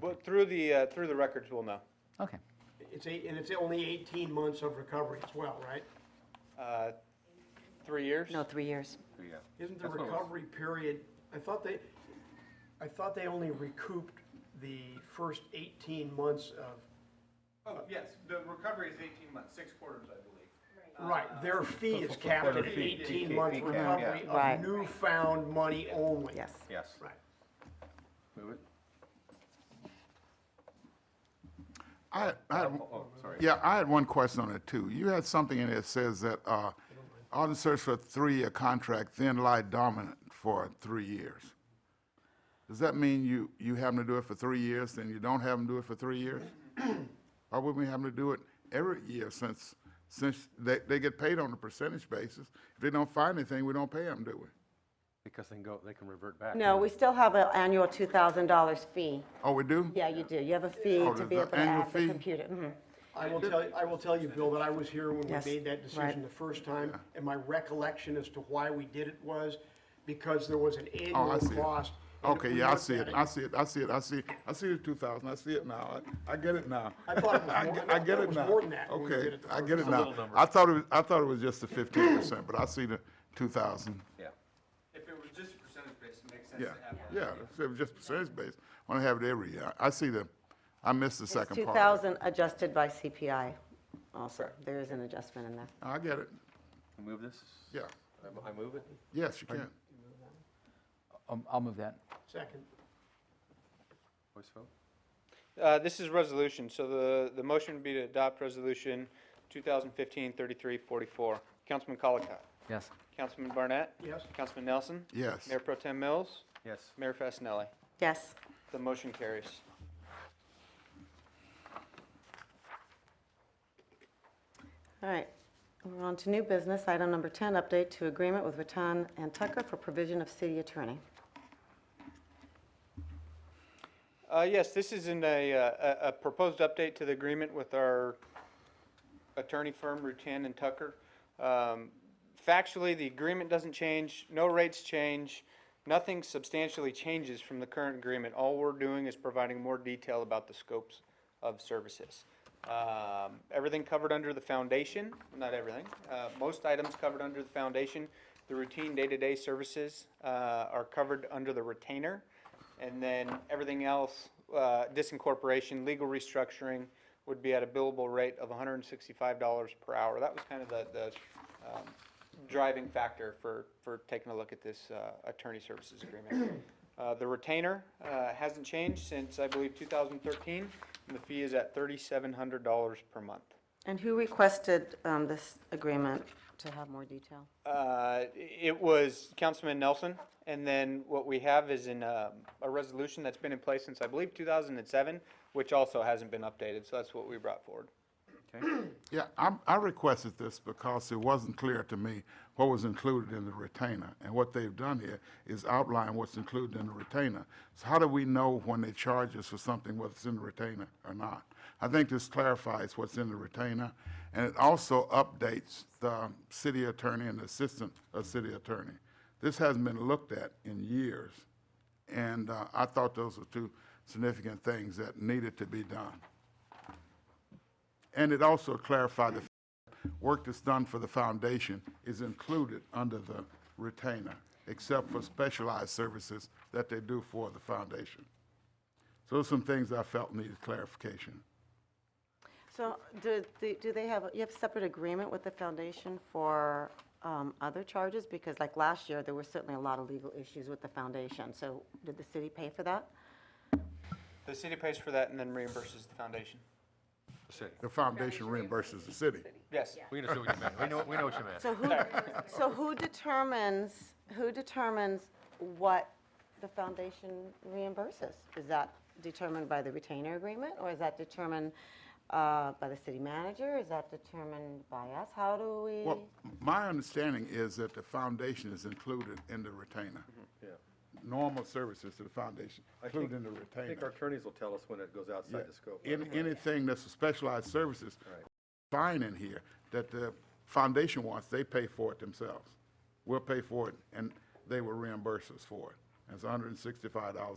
But through the, uh, through the records, we'll know. Okay. It's eight, and it's only eighteen months of recovery as well, right? Uh, Three years? No, three years. Yeah. Isn't the That's what it was. recovery period, I thought they, I thought they only recouped the first eighteen months of, Oh, yes, the recovery is eighteen months, six quarters, I believe. right, their fee is capped at Their fee- eighteen fee month cap, yeah. recovery Right. of newfound money only. Yes. Yes. Right. Move it. I, I had, Oh, oh, sorry. yeah, I had one question on it too. You had something in there that says that, uh, on search for a three-year contract, then lie dominant for three years. Does that mean you, you have them to do it for three years, then you don't have them do it for three years? Or would we have them to do it every year since, since they, they get paid on a percentage basis? If they don't find anything, we don't pay them, do we? Because they can go, they can revert back. No, we still have an annual $2,000 fee. Oh, we do? Yeah, you do. You have a fee Oh, to there's be an able to annual add the fee? computer. Mhm. I will tell, I will tell you, Bill, that I was here when we Yes, made that right. decision the first time, and my recollection as to why we did it was because there was an Oh, I annual see it. cost. and Okay, we yeah, I looked see at it, I see it, I see it, I see, I see the two thousand, I see it now, I, I get it now. I thought it was I more- get- I I get thought it it was now. more than that when we did Okay, it the I get it first now. I thought it was, I thought it was just the fifteen percent, but I see the two thousand. Yeah. If it was just percentage based, it makes sense Yeah, to have that. yeah, so it was just percentage based, wanna have it every year. I see the, I missed the It's second part. 2,000 adjusted by CPI also. There is an adjustment in there. I get it, Move this? yeah, I move it? yes, you can. Um, I'll move that. Second, Voice vote? Uh, This is resolution, so the, the motion would be to adopt resolution 2015-3344. Councilman Colacott? Yes. Councilman Barnett? yes? Councilman Nelson? Yes. Mayor Pro Tem Mills? Yes. Mayor Fasenelli? Yes. The motion carries. All right. We're on to new business. Item number 10, update to agreement with Ratan and Tucker for provision of city attorney. Uh, Yes, this is in a, uh, a a proposed update to the agreement with our attorney firm, Rutan and Tucker. Um, Factually, the agreement doesn't change, no rates change, nothing substantially changes from the current agreement. All we're doing is providing more detail about the scopes of services. Um, Everything covered under the foundation, not everything, uh, most items covered under the foundation. The routine day-to-day services uh, are covered under the retainer. And then everything else, uh, disincorporation, legal restructuring would be at a billable rate of hundred and sixty-five dollars per hour. That was kind of the, the, um, driving factor for, for taking a look at this, uh, attorney services agreement. Uh, the retainer, uh, hasn't changed since, I believe, two thousand thirteen, and the fee is at thirty-seven hundred dollars per month. And who requested um, this agreement to have more detail? Uh, It was Councilman Nelson, and then what we have is in um, a resolution that's been in place since, I believe, 2007, which also hasn't been updated, so that's what we brought forward. Yeah, I, I requested this because it wasn't clear to me what was included in the retainer. And what they've done here is outline what's included in the retainer. So how do we know when they charge us for something, whether it's in the retainer or not? I think this clarifies what's in the retainer, and it also updates the city attorney and assistant of city attorney. This hasn't been looked at in years, and uh, I thought those were two significant things that needed to be done. And it also clarified the work that's done for the foundation is included under the retainer, except for specialized services that they do for the foundation. So there's some things I felt needed clarification. So do, the- do they have, you have separate agreement with the foundation for um, other charges? Because like last year, there were certainly a lot of legal issues with the foundation. So did the city pay for that? The city pays for that and then reimburses the foundation. City. The foundation reimburses the city. Yes. We understood what you meant. We know, we know what you meant. So who, so who determines, who determines what the foundation reimburses? Is that determined by the retainer agreement, or is that determined uh, by the city manager? Is that determined by us? How do Well, we? my understanding is that the foundation is included in the retainer. Normal services to the foundation, included in the retainer. Mm-hmm. I think our attorneys will tell us when it goes outside the scope. Any, anything that's a specialized services, fine in here, that the foundation wants, they pay for it themselves. We'll pay for it, and they will reimburse us for it. And It's hundred and sixty-five dollars